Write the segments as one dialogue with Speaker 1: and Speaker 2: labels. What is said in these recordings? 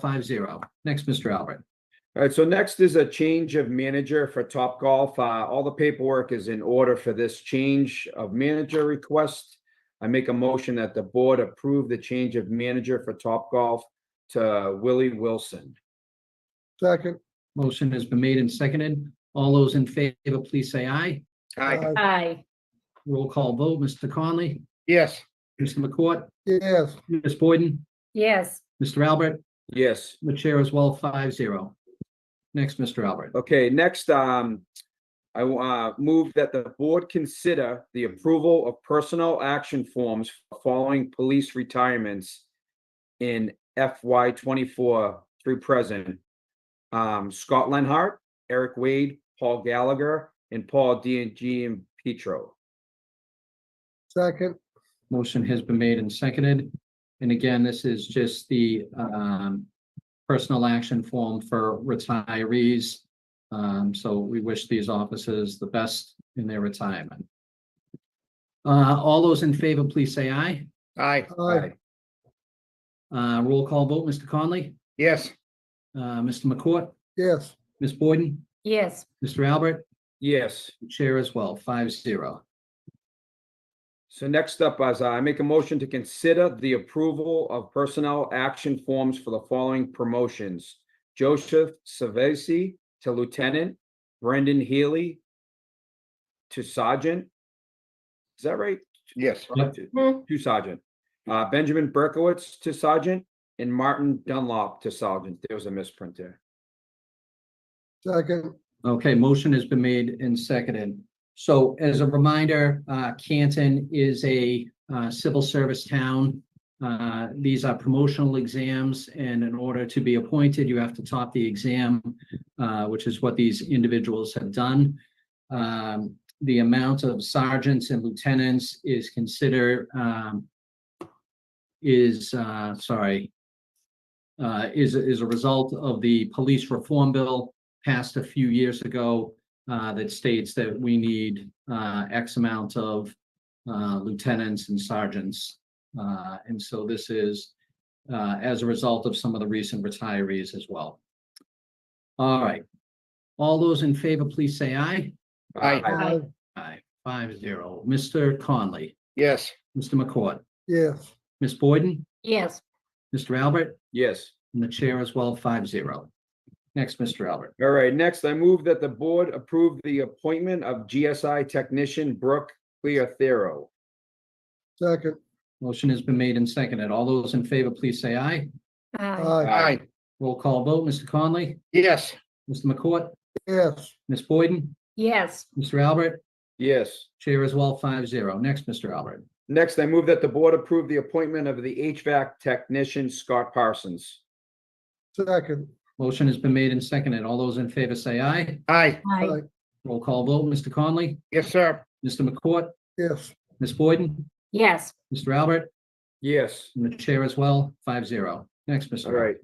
Speaker 1: Five zero. Next, Mr. Albert.
Speaker 2: All right, so next is a change of manager for Top Golf. All the paperwork is in order for this change of manager request. I make a motion that the board approve the change of manager for Top Golf to Willie Wilson.
Speaker 3: Second.
Speaker 1: Motion has been made and seconded. All those in favor, please say aye.
Speaker 3: Aye.
Speaker 4: Aye,
Speaker 1: Roll call vote, Mr. Conley,
Speaker 2: Yes.
Speaker 1: Mr. McCourt,
Speaker 3: Yes,
Speaker 1: Ms. Boyden,
Speaker 4: yes,
Speaker 1: Mr. Albert,
Speaker 2: Yes.
Speaker 1: the chair as well, five zero. Next, Mr. Albert.
Speaker 2: Okay, next, um, I, uh, move that the board consider the approval of personal action forms following police retirements in FY twenty-four through present. Um, Scott Lenhart, Eric Wade, Paul Gallagher, and Paul D and G and Petro.
Speaker 3: second.
Speaker 1: Motion has been made and seconded. And again, this is just the um personal action form for retirees. Um, so we wish these officers the best in their retirement. Uh, all those in favor, please say aye.
Speaker 5: Aye,
Speaker 3: Aye.
Speaker 1: Uh, roll call vote, Mr. Conley,
Speaker 5: yes,
Speaker 1: uh, Mr. McCourt,
Speaker 3: Yes,
Speaker 1: Ms. Boyden,
Speaker 4: yes,
Speaker 1: Mr. Albert,
Speaker 2: Yes.
Speaker 1: the chair as well, five zero.
Speaker 2: So next up is I make a motion to consider the approval of personnel action forms for the following promotions. Joseph Savesi to Lieutenant, Brendan Healy to Sergeant. Is that right?
Speaker 5: yes,
Speaker 1: Yep.
Speaker 2: To to Sergeant. Uh, Benjamin Berkowitz to Sergeant and Martin Dunlop to Sergeant. There was a misprint there.
Speaker 3: second.
Speaker 1: Okay, motion has been made and seconded. So as a reminder, uh, Canton is a uh, civil service town. Uh, These are promotional exams, and in order to be appointed, you have to top the exam, uh, which is what these individuals have done. Um, The amount of sergeants and lieutenants is considered um, is, uh, sorry, uh, is, is a result of the police reform bill passed a few years ago uh, that states that we need uh, X amount of uh, lieutenants and sergeants. Uh, And so this is uh, as a result of some of the recent retirees as well. All right. All those in favor, please say aye.
Speaker 2: Uh,
Speaker 5: Aye.
Speaker 4: Aye.
Speaker 1: Aye, five zero. Mr. Conley,
Speaker 5: yes,
Speaker 1: Mr. McCourt,
Speaker 3: Yes,
Speaker 1: Ms. Boyden,
Speaker 4: yes,
Speaker 1: Mr. Albert,
Speaker 2: Yes.
Speaker 1: and the chair as well, five zero. Next, Mr. Albert.
Speaker 2: All right, next, I move that the board approve the appointment of GSI Technician Brooke Clearthero.
Speaker 3: second.
Speaker 1: Motion has been made and seconded. All those in favor, please say aye.
Speaker 4: aye,
Speaker 3: Aye.
Speaker 5: aye,
Speaker 1: Roll call vote, Mr. Conley,
Speaker 5: yes,
Speaker 1: Mr. McCourt,
Speaker 3: Yes,
Speaker 1: Ms. Boyden,
Speaker 4: yes,
Speaker 1: Mr. Albert,
Speaker 2: Yes.
Speaker 1: Chair as well, five zero. Next, Mr. Albert.
Speaker 2: Next, I move that the board approve the appointment of the HVAC technician Scott Parsons.
Speaker 3: second.
Speaker 1: Motion has been made and seconded. All those in favor say aye.
Speaker 5: aye,
Speaker 3: uh,
Speaker 4: aye,
Speaker 1: Roll call vote, Mr. Conley,
Speaker 5: yes, sir,
Speaker 1: Mr. McCourt,
Speaker 3: Yes,
Speaker 1: Ms. Boyden,
Speaker 4: yes,
Speaker 1: Mr. Albert,
Speaker 2: Yes.
Speaker 1: and the Chair as well, five zero. Next, Mr.
Speaker 2: All
Speaker 1: Albert.
Speaker 2: right.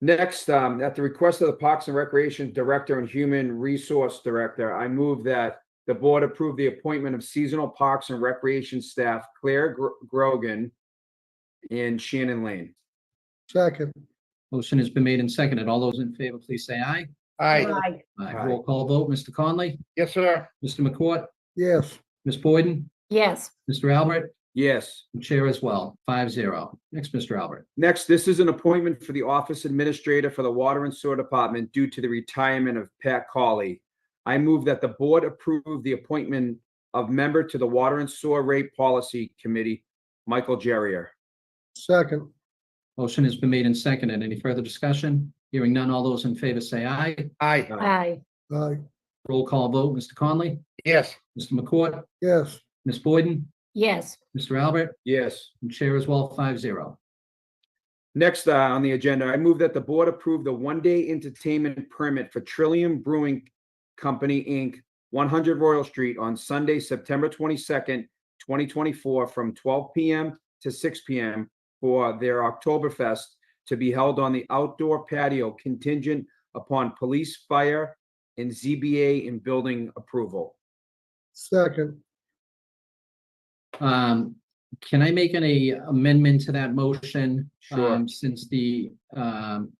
Speaker 2: Next, um, at the request of the Parks and Recreation Director and Human Resource Director, I move that the board approve the appointment of seasonal parks and recreation staff Claire Gro- Grogan and Shannon Lane.
Speaker 3: second.
Speaker 1: Motion has been made and seconded. All those in favor, please say aye.
Speaker 5: aye,
Speaker 4: aye,
Speaker 1: Aye.
Speaker 2: Aye.
Speaker 1: Roll call vote, Mr. Conley,
Speaker 5: yes, sir,
Speaker 1: Mr. McCourt,
Speaker 3: Yes,
Speaker 1: Ms. Boyden,
Speaker 4: yes,
Speaker 1: Mr. Albert,
Speaker 2: Yes.
Speaker 1: and Chair as well, five zero. Next, Mr. Albert.
Speaker 2: Next, this is an appointment for the office administrator for the Water and Sewer Department due to the retirement of Pat Colley. I move that the board approve the appointment of member to the Water and Sewer Rate Policy Committee, Michael Jerrier.
Speaker 3: second.
Speaker 1: Motion has been made and seconded. Any further discussion? Hearing none, all those in favor say aye.
Speaker 5: aye,
Speaker 4: aye,
Speaker 3: Aye.
Speaker 1: Roll call vote, Mr. Conley,
Speaker 5: yes,
Speaker 1: Mr. McCourt,
Speaker 3: Yes,
Speaker 1: Ms. Boyden,
Speaker 4: yes,
Speaker 1: Mr. Albert,
Speaker 2: Yes.
Speaker 1: and Chair as well, five zero.
Speaker 2: Next uh, on the agenda, I move that the board approve the one-day entertainment permit for Trillium Brewing Company, Inc., 100 Royal Street on Sunday, September 22nd, 2024, from 12 p.m. to 6 p.m. for their Oktoberfest to be held on the outdoor patio contingent upon police, fire, and ZBA and building approval.
Speaker 3: second.
Speaker 1: Um, Can I make any amendment to that motion?
Speaker 2: Sure.
Speaker 1: um, Since the um,